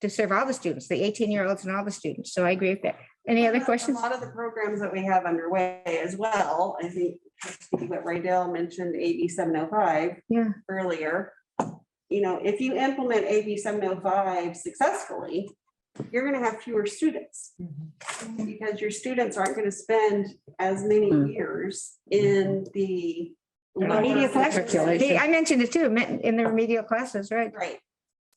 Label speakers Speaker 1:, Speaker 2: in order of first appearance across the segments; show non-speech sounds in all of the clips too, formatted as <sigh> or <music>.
Speaker 1: to serve all the students, the eighteen-year-olds and all the students. So I agree with that. Any other questions?
Speaker 2: A lot of the programs that we have underway as well, I think what Raydell mentioned, AB seven oh five.
Speaker 1: Yeah.
Speaker 2: Earlier, you know, if you implement AB seven oh five successfully, you're gonna have fewer students. Because your students aren't gonna spend as
Speaker 1: Hmm.
Speaker 2: many years in the.
Speaker 1: Remedial classes.
Speaker 3: Circulation.
Speaker 1: They- I mentioned it too, men- in the remedial classes, right?
Speaker 2: Right,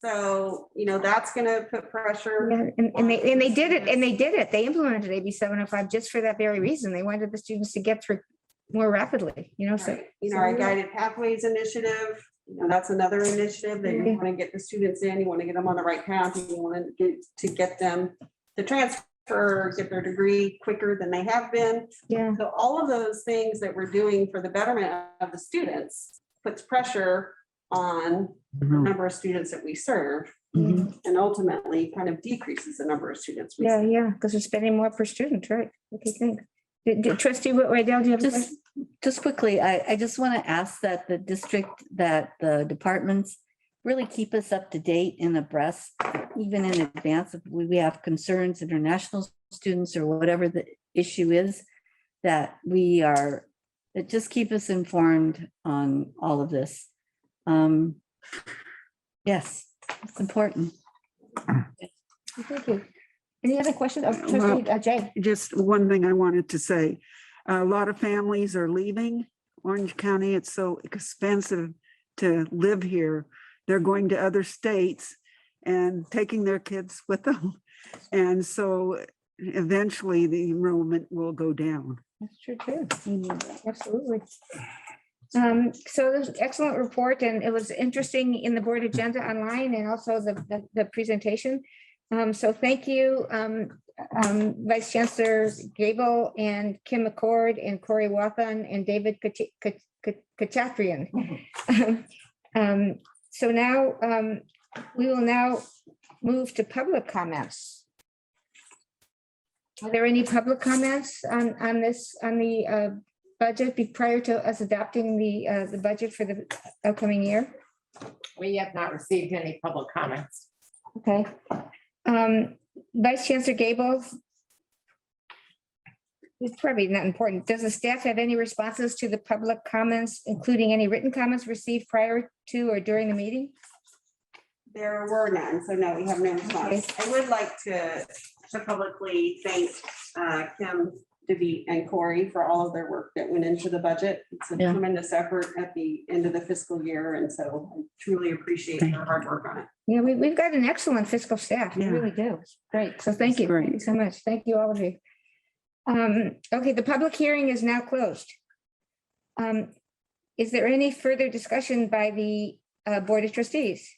Speaker 2: so, you know, that's gonna put pressure.
Speaker 1: Yeah, And, and they, and they did it, and they did it. They implemented AB seven oh five just for that very reason. They wanted the students to get through more rapidly, you know, so.
Speaker 2: Right. You know, our guided pathways initiative, you know, that's another initiative that you
Speaker 1: Yeah.
Speaker 2: want to get the students in, you want to get them on the right path, you want to get, to get them to transfer, get their degree quicker than they have been.
Speaker 1: Yeah,
Speaker 2: So all of those things that we're doing for the betterment of the students puts pressure on the number of students that we serve and ultimately kind of decreases the number of students. we
Speaker 1: yeah,
Speaker 2: serve.
Speaker 1: yeah, because we're spending more per student, right? Okay, thanks. Did- did- Trustee Whitwell, do you have a
Speaker 3: Just,
Speaker 1: question?
Speaker 3: just quickly, I, I just want to ask that the district, that the departments really keep us up to date and abreast, even in advance if we, we have concerns, international students or whatever the issue is, that we are, that just keep us informed on all of this. Um Yes, it's important.
Speaker 1: Thank you. Any other questions? Oh, Trustee uh, Jay?
Speaker 4: just one thing I wanted to say. A lot of families are leaving Orange County. It's so expensive to live here. They're going to other states and taking their kids <laughs> with them. And so eventually the enrollment will go down.
Speaker 1: That's true, too. Absolutely. Um, so this is excellent report and it was interesting in the board agenda online and also the, the, the presentation. Um, so thank you, um, um, Vice Chancellors Gable and Kim McCord and Corey Wathan and David Kachi- Kach- Kach- Kachatrian. Um, so now, um, we will now move to public comments. Are there any public comments on, on this, on the uh, budget be- prior to us adopting the, uh, the budget for the upcoming year?
Speaker 5: We have not received any public comments.
Speaker 1: Okay. Um, Vice Chancellor Gables? It's probably not important. Does the staff have any responses to the public comments, including any written comments received prior to or during the meeting?
Speaker 2: There were none, so no, we have no response. I would like to to publicly thank uh, Kim, Devi, and Corey for all of their work that went into the budget. It's a
Speaker 3: Yeah.
Speaker 2: tremendous effort at the end of the fiscal year, and so I truly appreciate their hard work on it.
Speaker 1: Yeah, we, we've got an excellent fiscal staff. We
Speaker 4: Yeah.
Speaker 1: really do. It's Great. So thank
Speaker 4: It's
Speaker 1: you. Thank you
Speaker 4: great.
Speaker 1: so much. Thank you, all of you. Um, okay, the public hearing is now closed. Um, is there any further discussion by the, uh, Board of Trustees?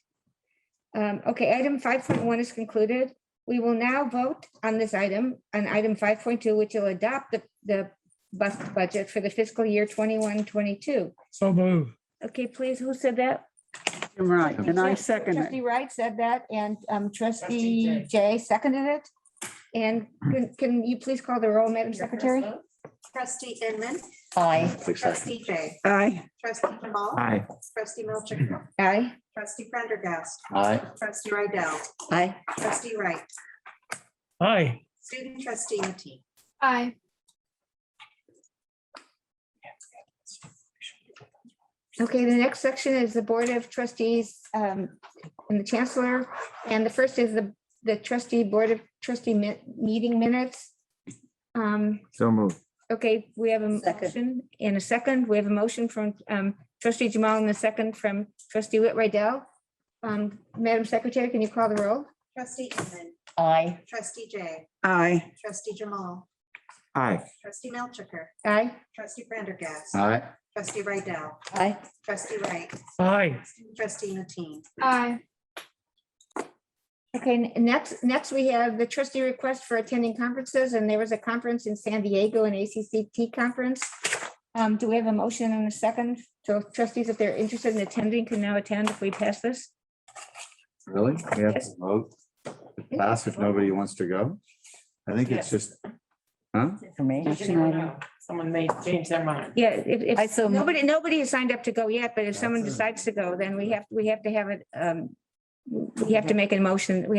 Speaker 1: Um, okay, item five point one is concluded. We will now vote on this item, on item five point two, which will adopt the, the bus budget for the fiscal year 21-22.
Speaker 6: So move.
Speaker 1: Okay, please, who said that?
Speaker 4: You're right. And I
Speaker 1: Yeah,
Speaker 4: second it.
Speaker 1: Trustee Wright said that and um, trustee
Speaker 5: Trustee
Speaker 1: Jay seconded it. And can- can you please call the roll, Madam Secretary?
Speaker 7: Trustee Inman,
Speaker 3: Aye.
Speaker 7: trustee Jay,
Speaker 4: Aye.
Speaker 7: trustee Jamal,
Speaker 6: Aye.
Speaker 7: trustee Melchick,
Speaker 1: Aye.
Speaker 7: trustee Prendergast,
Speaker 8: Aye.
Speaker 7: trustee Rydell,
Speaker 3: Aye.
Speaker 7: trustee Wright,
Speaker 6: Aye.
Speaker 7: student trustee Matee.
Speaker 9: Aye.
Speaker 1: Okay, the next section is the Board of Trustees um, and the Chancellor. And the first is the the trustee Board of Trustee mi- meeting minutes. Um,
Speaker 8: So move.
Speaker 1: Okay, we have a
Speaker 3: Second.
Speaker 1: motion in a second. We have a motion from um, trustee Jamal and a second from trustee Whit Riddell. Um, Madam Secretary, can you call the roll?
Speaker 7: Trustee Inman,
Speaker 3: Aye.
Speaker 7: trustee Jay,
Speaker 4: Aye.
Speaker 7: trustee Jamal,
Speaker 8: Aye.
Speaker 7: trustee Melchicker,
Speaker 1: Aye.
Speaker 7: trustee Prendergast,
Speaker 8: Aye.
Speaker 7: trustee Rydell,
Speaker 3: Aye.
Speaker 7: trustee Wright,
Speaker 6: Aye.
Speaker 7: student trustee Matee.
Speaker 9: Aye.
Speaker 1: Okay, n- next, next we have the trustee request for attending conferences, and there was a conference in San Diego, an ACCT conference. Um, do we have a motion and a second? So trustees, if they're interested in attending, can now attend if we pass this.
Speaker 8: Really? We have to vote to pass if nobody wants to go? I think it's just, huh?
Speaker 3: Information item.
Speaker 5: Someone may change their mind.
Speaker 1: Yeah, if, if-
Speaker 3: I so mo-
Speaker 1: nobody, nobody has signed up to go yet, but if someone
Speaker 8: That's it.
Speaker 1: decides to go, then we have, we have to have it, um, we have to make a motion, we